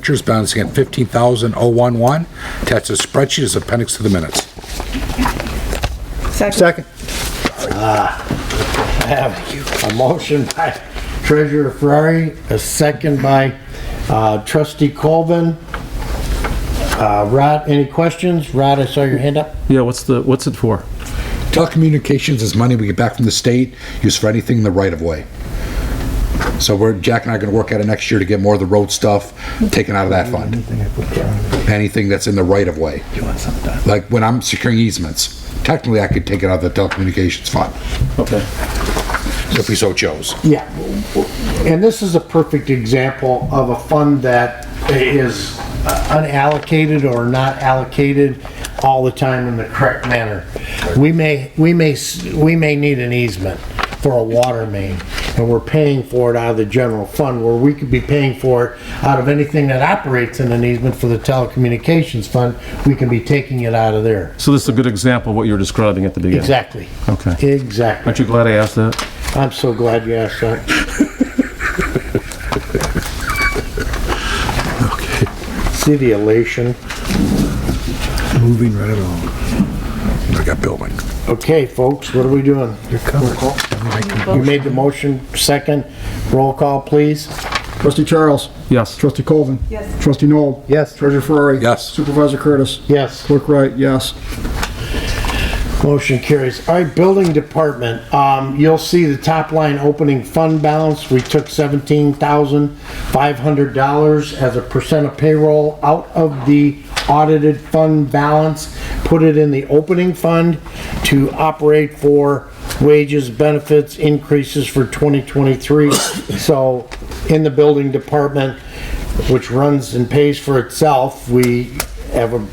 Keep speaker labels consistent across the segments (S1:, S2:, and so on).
S1: Vouchers bouncing at 15,011. Attached to the spreadsheet is appendix to the minutes.
S2: Second.
S3: A motion by Treasurer Ferrari, a second by uh, Trustee Colvin. Uh, Rod, any questions? Rod, I saw your hand up.
S4: Yeah, what's the, what's it for?
S1: Telecommunications is money we get back from the state, used for anything in the right of way. So we're, Jack and I are gonna work at it next year to get more of the road stuff taken out of that fund. Anything that's in the right of way. Like when I'm securing easements, technically I could take it out of the telecommunications fund,
S4: Okay.
S1: if we so chose.
S3: Yeah, and this is a perfect example of a fund that is unallocated or not allocated all the time in the correct manner. We may, we may, s- we may need an easement for a water main, and we're paying for it out of the general fund, where we could be paying for it out of anything that operates in an easement for the telecommunications fund, we can be taking it out of there.
S4: So this is a good example of what you were describing at the beginning.
S3: Exactly.
S4: Okay.
S3: Exactly.
S4: Aren't you glad I asked that?
S3: I'm so glad you asked that. See the elation.
S2: Moving right along.
S1: I got building.
S3: Okay, folks, what are we doing?
S2: You're covered.
S3: You made the motion, second. Roll call, please.
S2: Trustee Charles.
S4: Yes.
S2: Trustee Colvin.
S5: Yes.
S2: Trustee Noel.
S3: Yes.
S2: Treasurer Ferrari.
S1: Yes.
S2: Supervisor Curtis.
S3: Yes.
S2: Clerk Wright, yes.
S3: Motion carries. All right, building department, um, you'll see the top line opening fund balance. We took seventeen thousand five hundred dollars as a percent of payroll out of the audited fund balance, put it in the opening fund to operate for wages, benefits, increases for twenty twenty-three. So in the building department, which runs and pays for itself, we have a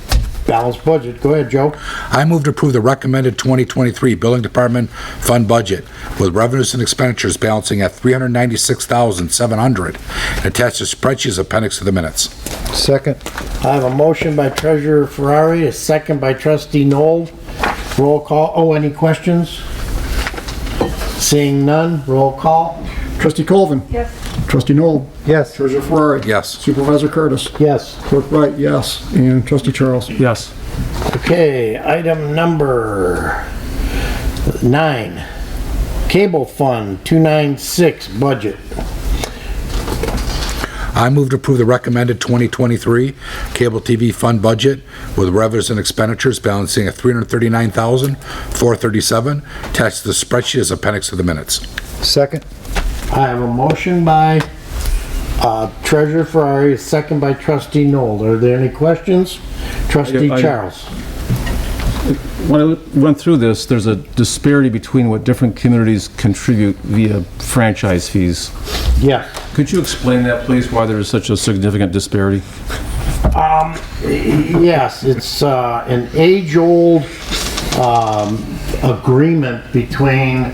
S3: balanced budget. Go ahead, Joe.
S1: I move to approve the recommended 2023 Building Department Fund Budget with revenues and expenditures balancing at 396,700 and attached to spreadsheet is appendix to the minutes.
S2: Second.
S3: I have a motion by Treasurer Ferrari, a second by Trustee Noel. Roll call. Oh, any questions? Seeing none, roll call.
S2: Trustee Colvin.
S5: Yes.
S2: Trustee Noel.
S3: Yes.
S2: Treasurer Ferrari.
S1: Yes.
S2: Supervisor Curtis.
S3: Yes.
S2: Clerk Wright, yes. And Trustee Charles.
S4: Yes.
S3: Okay, item number nine. Cable Fund 296 budget.
S1: I move to approve the recommended 2023 Cable TV Fund Budget with revenues and expenditures balancing at 339,437 attached to the spreadsheet is appendix to the minutes.
S2: Second.
S3: I have a motion by uh, Treasurer Ferrari, a second by Trustee Noel. Are there any questions? Trustee
S4: I- I-
S3: Charles.
S4: When I went through this, there's a disparity between what different communities contribute via franchise fees.
S3: Yes.
S4: Could you explain that, please, why there is such a significant disparity?
S3: Yes, it's uh, an age-old um, agreement between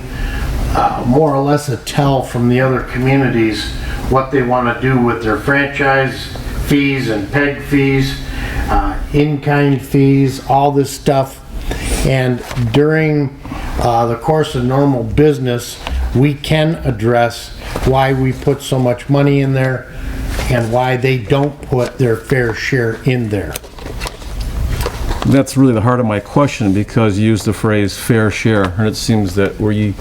S3: uh, more or less a tell from the other communities what they want to do with their franchise fees and peg fees, uh, in-kind fees, all this stuff. And during uh, the course of normal business, we can address why we put so much money in there and why they don't put their fair share in there.
S4: That's really the heart of my question, because you used the phrase fair share, and it seems that where you,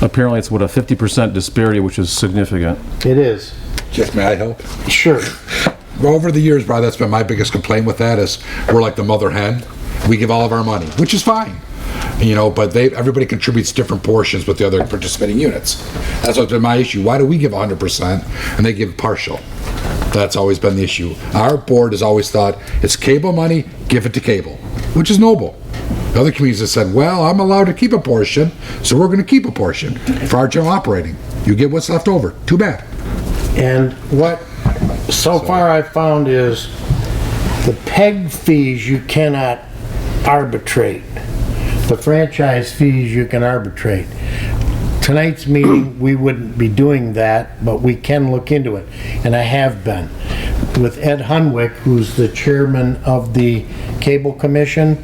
S4: apparently it's what, a 50% disparity, which is significant.
S3: It is.
S1: Jeff, may I help?
S3: Sure.
S1: Well, over the years, Brian, that's been my biggest complaint with that is we're like the mother hen. We give all of our money, which is fine, you know. But they everybody contributes different portions with the other participating units. That's always been my issue. Why do we give 100 percent and they give partial? That's always been the issue. Our board has always thought it's cable money, give it to cable, which is noble. The other communities have said, well, I'm allowed to keep a portion, so we're going to keep a portion for our general operating. You get what's left over. Too bad.
S3: And what so far I've found is the peg fees you cannot arbitrate. The franchise fees you can arbitrate. Tonight's meeting, we wouldn't be doing that, but we can look into it, and I have been. With Ed Hunwick, who's the chairman of the Cable Commission,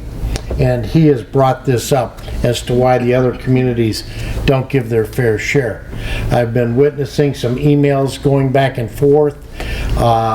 S3: and he has brought this up as to why the other communities don't give their fair share. I've been witnessing some emails going back and forth Uh,